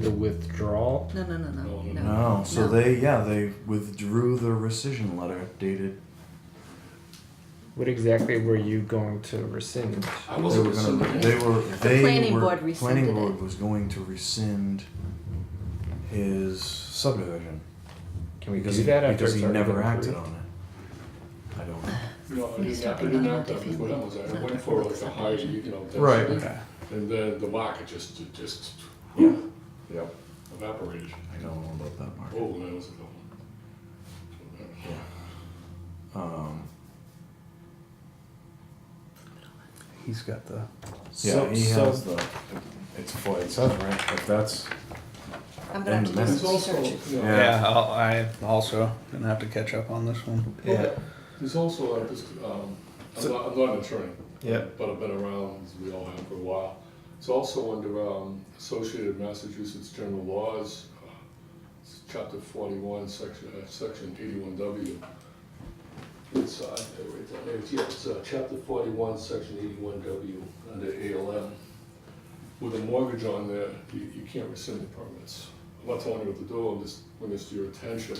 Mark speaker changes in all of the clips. Speaker 1: The withdrawal?
Speaker 2: No, no, no, no, no.
Speaker 3: No, Oh, so
Speaker 2: no.
Speaker 3: they yeah they withdrew the rescission letter dated.
Speaker 1: What exactly were you going to rescind?
Speaker 4: I
Speaker 3: They
Speaker 4: wasn't
Speaker 3: were gonna.
Speaker 4: assuming
Speaker 3: They
Speaker 4: that.
Speaker 3: were. They
Speaker 2: planning
Speaker 3: were,
Speaker 2: board rescinded
Speaker 3: Planning board
Speaker 2: it.
Speaker 3: was going to rescind his subdivision
Speaker 1: Can we
Speaker 3: because
Speaker 1: do
Speaker 3: he,
Speaker 1: that after
Speaker 3: because
Speaker 1: it's
Speaker 3: he
Speaker 1: already
Speaker 3: never
Speaker 1: been
Speaker 3: acted
Speaker 1: approved?
Speaker 3: on it. I don't. know.
Speaker 4: No, I
Speaker 2: He's
Speaker 4: didn't, I
Speaker 2: talking
Speaker 4: didn't
Speaker 2: about
Speaker 4: act up before that was,
Speaker 2: multifamily.
Speaker 4: I went for like a high, you know. that's-
Speaker 3: Right.
Speaker 1: Okay.
Speaker 4: And then the market just, it just
Speaker 3: Yeah. Yep.
Speaker 4: evaporated.
Speaker 3: I don't know about that market.
Speaker 4: Oh, that was a good
Speaker 3: Um,
Speaker 5: He's got the.
Speaker 3: yeah,
Speaker 1: So-
Speaker 3: he
Speaker 1: so-
Speaker 3: has the. It's what it says, right? If that's
Speaker 2: I'm gonna have to do
Speaker 3: It's
Speaker 2: some
Speaker 4: also,
Speaker 2: research.
Speaker 4: you know,
Speaker 3: Yeah.
Speaker 5: Yeah, I'll, I also gonna have to catch up on this one.
Speaker 3: yeah.
Speaker 4: There's also, uh, this, um, I'm not, I'm not an attorney.
Speaker 3: Yeah.
Speaker 4: But I've been around, as we all have for a while. It's also under, um, Associated Massachusetts General Laws, uh, it's chapter forty-one, section, uh, section eighty-one W. It's, uh, right down there. It's- yeah, it's, uh, chapter forty-one, section eighty-one W, under ALM. With a mortgage on there, you, you can't rescind the permits. I'm not telling you what to do, I'm just bringing this to your attention.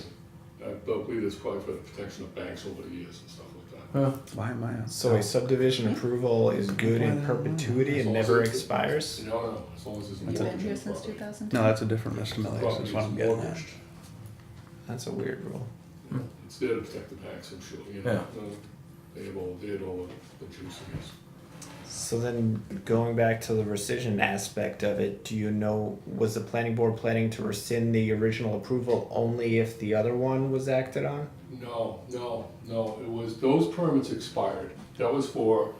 Speaker 4: I believe it's probably for the protection of banks over the years and stuff like that.
Speaker 5: Why am I? on-
Speaker 1: So a subdivision approval is good in perpetuity and never expires?
Speaker 4: No, no, as long as it's.
Speaker 2: You've been
Speaker 4: mortgage
Speaker 2: here
Speaker 4: on
Speaker 2: since
Speaker 4: property.
Speaker 2: 2002?
Speaker 5: No, that's a different Mr. Milligan.
Speaker 4: Property
Speaker 5: That's what
Speaker 4: is
Speaker 5: I'm getting at.
Speaker 4: mortgaged.
Speaker 1: That's a weird rule.
Speaker 4: It's there to protect the banks, I'm sure, you know. They have all, they had all the juice, I guess.
Speaker 1: So then, going back to the rescission aspect of it, do you know, was the planning board planning to rescind the original approval only if the other one was acted on?
Speaker 4: No, no, no, it was, those permits expired. That was for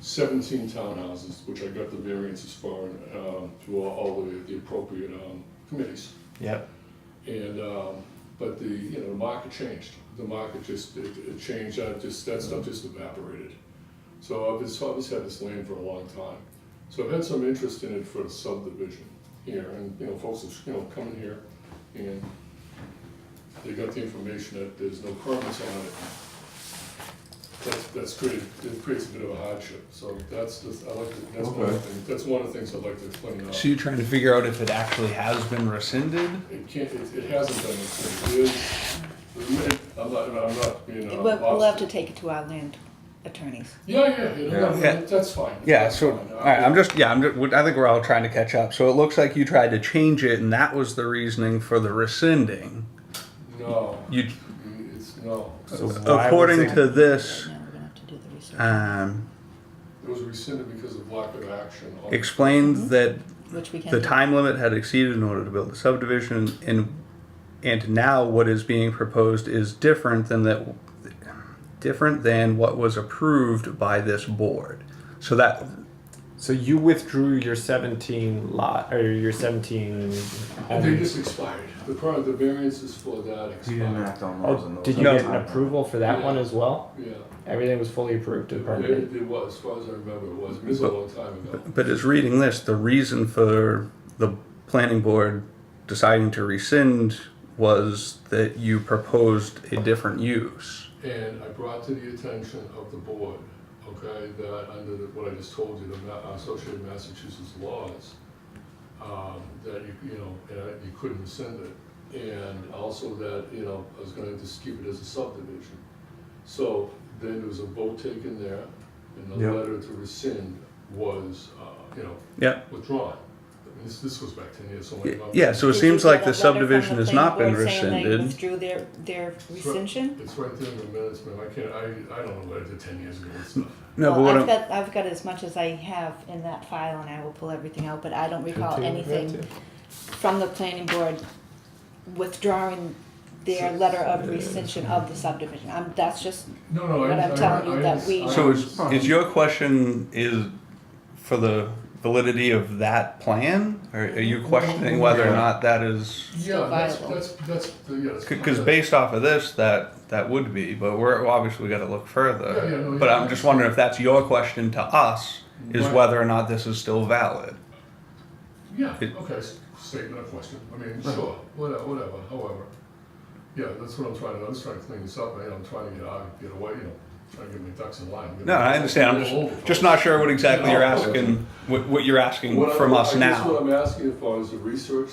Speaker 4: seventeen townhouses, which I got the variances for, um, through all- all the, the appropriate, um, committees.
Speaker 1: Yep.
Speaker 4: And, um, but the, you know, the market changed. The market just, it, it changed, that just, that stuff just evaporated. So I've just, I've just had this land for a long time. So I've had some interest in it for subdivision here, and, you know, folks are, you know, coming here, and they got the information that there's no permits on it. That's, that's created, it creates a bit of a hardship, so that's, the- I like, to- that's one of the
Speaker 3: Okay.
Speaker 4: things, that's one of the things I'd like to explain out.
Speaker 5: So you're trying to figure out if it actually has been rescinded?
Speaker 4: It can't, it, it hasn't been, it is, I'm not, I'm not being.
Speaker 2: We'll,
Speaker 4: uh,
Speaker 2: we'll have to
Speaker 4: obstinate.
Speaker 2: take it to our land attorneys.
Speaker 4: Yeah, yeah, yeah, no,
Speaker 5: Yeah.
Speaker 4: no, that's fine.
Speaker 5: Yeah.
Speaker 4: that's
Speaker 5: So
Speaker 4: fine.
Speaker 5: all right, I'm just yeah. I'm just, I think we're all trying to catch up. So it looks like you tried to change it, and that was the reasoning for the rescinding.
Speaker 4: No,
Speaker 5: You
Speaker 4: it's, no,
Speaker 1: So why was
Speaker 5: according
Speaker 1: it-
Speaker 5: to this.
Speaker 2: Now we're gonna have to do the research,
Speaker 5: Um,
Speaker 4: it was rescinded because of lack of action. on-
Speaker 5: explained that
Speaker 2: which we can.
Speaker 5: The
Speaker 2: do.
Speaker 5: time limit had exceeded in order to build the subdivision, and and now what is being proposed is different than that, different than what was approved by this board. So that
Speaker 1: So you withdrew your seventeen lot, or your seventeen.
Speaker 4: They just expired, the part, the variances for that
Speaker 3: He didn't
Speaker 4: expired,
Speaker 3: act on those.
Speaker 1: Oh,
Speaker 3: and those
Speaker 1: did you
Speaker 3: at the
Speaker 1: get an
Speaker 3: time.
Speaker 1: approval for that one as well?
Speaker 4: yeah.
Speaker 1: Everything was fully approved
Speaker 4: It,
Speaker 1: and permitted.
Speaker 4: it was, as far as I remember, it was, it was a long time ago.
Speaker 5: But as reading this, the reason for the planning board deciding to rescind was that you proposed a different use.
Speaker 4: And I brought to the attention of the board, okay, that under the- what I just told you, the Ma- uh, Associated Massachusetts laws, um, that you, you know, uh, you couldn't rescind it. And also that, you know, I was gonna just keep it as a subdivision. So then there was a vote taken there, and the
Speaker 3: Yep.
Speaker 4: letter to rescind was, uh, you know,
Speaker 5: Yeah,
Speaker 4: withdrawn. I mean, This, this goes back ten years, so. my- my-
Speaker 5: yeah. So it
Speaker 2: Did
Speaker 5: seems
Speaker 2: you
Speaker 5: like
Speaker 2: get a
Speaker 5: the
Speaker 2: letter from
Speaker 5: subdivision has
Speaker 2: planning
Speaker 5: not been
Speaker 2: board saying they
Speaker 5: rescinded.
Speaker 2: Withdrew their, their rescission?
Speaker 4: It's right there in the minutes, man, I can't, I, I don't know what I did ten years ago and stuff.
Speaker 5: No, but
Speaker 2: Well,
Speaker 5: what
Speaker 2: I've
Speaker 5: I'm-
Speaker 2: got, I've got as much as I have in that file and I will pull everything out, but I don't recall anything from the planning board withdrawing their letter of rescission of the subdivision. Um, that's just,
Speaker 4: No, no, I.
Speaker 2: But I'm
Speaker 4: I-
Speaker 2: telling you
Speaker 4: I
Speaker 2: that we-
Speaker 4: understand.
Speaker 5: So is, is your question is for the validity of that plan? Or are you questioning whether or not that is,
Speaker 4: Yeah, that's,
Speaker 2: viable.
Speaker 4: that's, that's, yeah. that's-
Speaker 5: because based off of this, that, that would be, but we're, obviously we gotta look
Speaker 4: Yeah, yeah, no,
Speaker 5: further.
Speaker 4: yeah.
Speaker 5: But I'm just wondering if that's your question to us, is whether or not this is still valid?
Speaker 4: Yeah,
Speaker 5: it-
Speaker 4: okay, s- statement of question, I mean, sure, whatever, whatever, however. Yeah, that's what I'm trying to, I'm just trying to clean this up, man, I'm trying to get out, get away, you know, trying to get my ducks in line.
Speaker 5: No, I understand, I'm just, just not sure what exactly you're asking, what, what you're asking
Speaker 4: What I-
Speaker 5: from us
Speaker 4: I
Speaker 5: now.
Speaker 4: guess what I'm asking for is the research